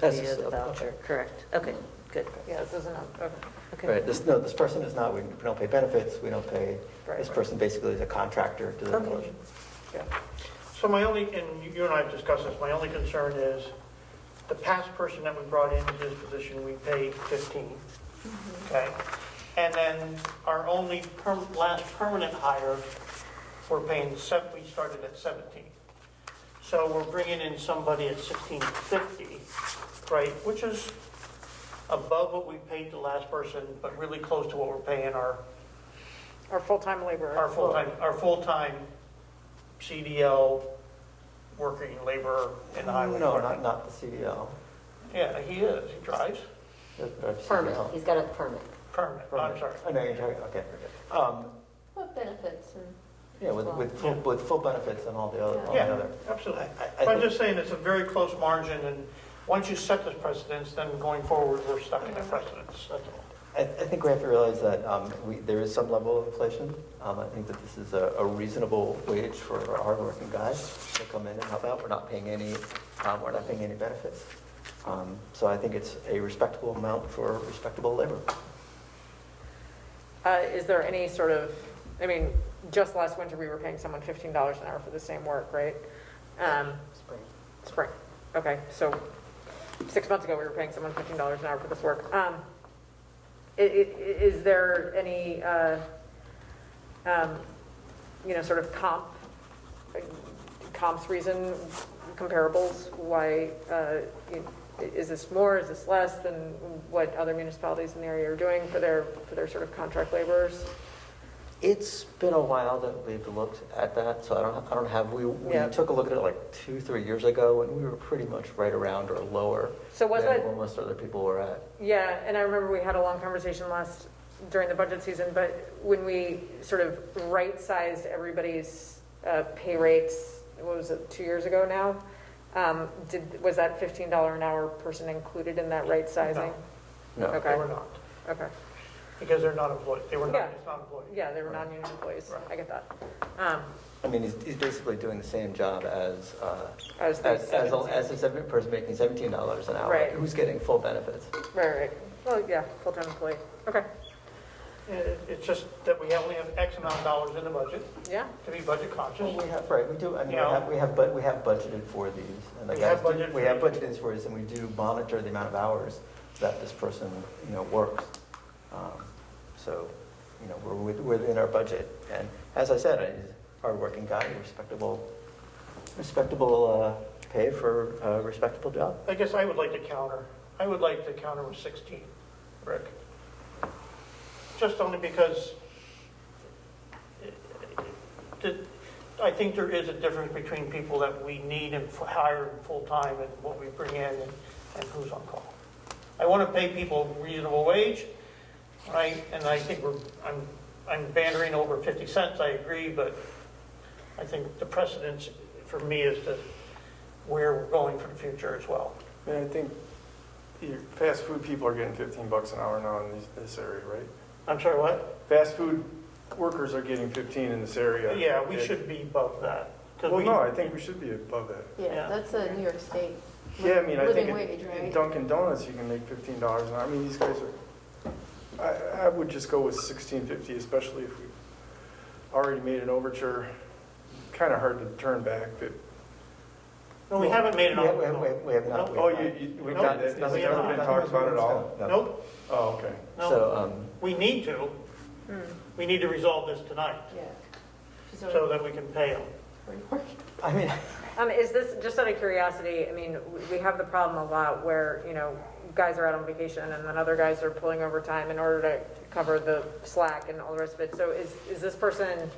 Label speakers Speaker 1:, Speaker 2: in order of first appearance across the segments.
Speaker 1: That's
Speaker 2: via
Speaker 1: just
Speaker 2: the
Speaker 1: a-
Speaker 2: voucher, correct, okay, good,
Speaker 3: Yeah, this isn't, okay.
Speaker 2: okay.
Speaker 1: Right, this, no, this person is not, we don't pay benefits, we don't pay, this
Speaker 3: Right.
Speaker 1: person basically is a contractor to the
Speaker 2: Okay.
Speaker 1: village.
Speaker 3: yeah.
Speaker 4: So my only, and you- you and I have discussed this, my only concern is, the past person that we brought into this position, we paid 15,
Speaker 3: Mm-hmm.
Speaker 4: okay? And then our only perm, last permanent hire, we're paying, sev- we started at 17. So we're bringing in somebody at 1650, right, which is above what we paid the last person, but really close to what we're paying our
Speaker 3: Our full-time laborer.
Speaker 4: our full-time, our full-time CDL working laborer in the highway
Speaker 1: No, not,
Speaker 4: department.
Speaker 1: not the E CDL.
Speaker 4: Yeah, he is, he drives,
Speaker 1: the- the
Speaker 5: Permit,
Speaker 1: CDL.
Speaker 5: he's got a permit.
Speaker 4: permanent, I'm
Speaker 1: Permit.
Speaker 4: sorry.
Speaker 1: Oh, no, you're talking, okay. Um,
Speaker 5: What benefits and?
Speaker 1: Yeah, with, with, full- with full benefits and all the other, all the
Speaker 4: Yeah,
Speaker 1: other. I-
Speaker 4: absolutely.
Speaker 1: I- I
Speaker 4: But I'm
Speaker 1: think-
Speaker 4: just saying, it's a very close margin, and once you set this precedence, then going forward, we're stuck in the precedence, that's all.
Speaker 1: I, I think we have to realize that um, we, there is some level of inflation. Um, I think that this is a, a reasonable wage for our hardworking guys to come in and help out. We're not paying any, um, we're not paying any benefits. Um, so I think it's a respectable amount for respectable labor.
Speaker 3: Uh, Is there any sort of, I mean, just last winter, we were paying someone $15 an hour for the same work, right? Um, Spring, okay, so six months ago, we were paying someone $15 an hour for this work. Um, i- i- Is there any, uh, um, you know, sort of comp, comps reason, comparables, why, uh, you- is this more, is this less than what other municipalities in the area are doing for their, for their sort of contract laborers?
Speaker 1: It's been a while that we've looked at that, so I don't, I don't have, we, we
Speaker 3: Yeah.
Speaker 1: took a look at it like two, three years ago, and we were pretty much right around or lower
Speaker 3: So was
Speaker 1: than
Speaker 3: it-
Speaker 1: where most other people were at.
Speaker 3: Yeah, and I remember we had a long conversation last, during the budget season, but when we sort of right-sized everybody's uh, pay rates, what was it, two years ago now? Um, Did, was that $15 an hour person included in that right sizing?
Speaker 1: No.
Speaker 3: Okay.
Speaker 4: They were not,
Speaker 3: Okay,
Speaker 4: because they're not employed, they were
Speaker 3: Yeah.
Speaker 4: not, it's not employed.
Speaker 3: yeah, they were non-union employees,
Speaker 4: Right.
Speaker 3: I get that. Um,
Speaker 1: I mean, he's, he's basically doing the same job as, uh,
Speaker 3: As the
Speaker 1: as, as a-
Speaker 3: 17.
Speaker 1: as a seven, person making seventeen dollars an hour.
Speaker 3: Right.
Speaker 1: Who's getting full benefits?
Speaker 3: Right, right, well, yeah, full-time employee, okay,
Speaker 4: It- It's just that we only have X amount of dollars in the budget
Speaker 3: yeah,
Speaker 4: to be budget
Speaker 1: Well,
Speaker 4: conscious.
Speaker 1: we have, right, we do, I mean, we
Speaker 4: Oh, Yeah.
Speaker 1: have, we have, but, we have budgeted for these. and the
Speaker 4: We
Speaker 1: guys
Speaker 4: have
Speaker 1: do-
Speaker 4: budgeted
Speaker 1: We
Speaker 4: for
Speaker 1: have
Speaker 4: these.
Speaker 1: budgeted for these, and we do monitor the amount of hours that this person, you know, works. Um, So, you know, we're with- within our budget, and as I said, he's a hardworking guy, respectable, respectable, uh, pay for a respectable job.
Speaker 4: I guess I would like to counter, I would like to counter with 16, Rick. Just only because the- I think there is a difference between people that we need and f- hire in full-time and what we bring in and and who's on call. I want to pay people reasonable wage, right? And I think we're, I'm, I'm bantering over 50 cents, I agree, but I think the precedence for me is to where we're going for the future as well.
Speaker 6: Yeah, I think your fast food people are getting 15 bucks an hour now in these- this area, right?
Speaker 4: I'm sorry, what?
Speaker 6: Fast food workers are getting 15 in this area.
Speaker 4: Yeah, we should be above that. 'cause
Speaker 6: Well,
Speaker 4: we-
Speaker 6: no, I think we should be above that.
Speaker 4: Yeah.
Speaker 5: Yeah, that's a New York State.
Speaker 6: Yeah, I mean, I think
Speaker 5: Living
Speaker 6: in-
Speaker 5: wage,
Speaker 6: in
Speaker 5: right?
Speaker 6: Dunkin' Donuts, you can make $15 an hour. I mean, these guys are, I, I would just go with 16.50, especially if we already made an overture. Kind of hard to turn back, but,
Speaker 4: No, we haven't made an
Speaker 1: Yeah, we have- we
Speaker 4: offer.
Speaker 1: have- We have not.
Speaker 4: No.
Speaker 1: we have not.
Speaker 6: oh, you, you, we
Speaker 4: No,
Speaker 6: got
Speaker 4: it's-
Speaker 6: it. That's
Speaker 4: we
Speaker 6: never
Speaker 4: haven't.
Speaker 6: been talked about at all?
Speaker 1: No.
Speaker 4: Nope,
Speaker 6: Oh, okay.
Speaker 4: no.
Speaker 1: So, um,
Speaker 4: We need to. We need to resolve this tonight
Speaker 5: Yeah. She's
Speaker 4: so
Speaker 5: already
Speaker 4: that we can pay them.
Speaker 5: working.
Speaker 1: I mean,
Speaker 3: Um, is this, just out of curiosity, I mean, w- we have the problem a lot where, you know, guys are out on vacation and then other guys are pulling overtime in order to cover the slack and all the rest of it. So is, is this person,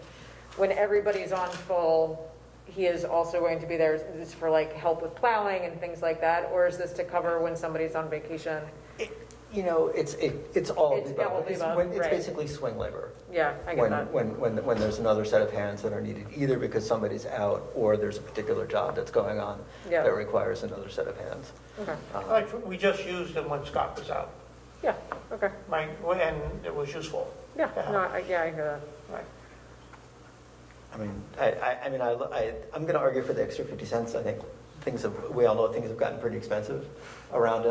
Speaker 3: when everybody's on full, he is also going to be there, is this for like help with plowing and things like that? Or is this to cover when somebody's on vacation?
Speaker 1: it- you know, it's, it- it's all of
Speaker 3: It's
Speaker 1: the
Speaker 3: all of
Speaker 1: above.
Speaker 3: the
Speaker 1: It's
Speaker 3: above,
Speaker 1: when- It's
Speaker 3: right.
Speaker 1: basically swing labor.
Speaker 3: Yeah, I get
Speaker 1: when-
Speaker 3: that.
Speaker 1: When, when, when there's another set of hands that are needed, either because somebody's out or there's a particular job that's going on
Speaker 3: Yeah.
Speaker 1: that requires another set of hands.
Speaker 3: Okay,
Speaker 1: Uh,
Speaker 4: Like, we just used them when Scott was out,
Speaker 3: yeah, okay,
Speaker 4: right? And it was useful,
Speaker 3: yeah, no, I, yeah, I hear
Speaker 4: right?
Speaker 1: I mean, I, I, I mean, I, lo- I, I'm going to argue for the extra 50 cents, I think, things have, we all know things have gotten pretty expensive around us.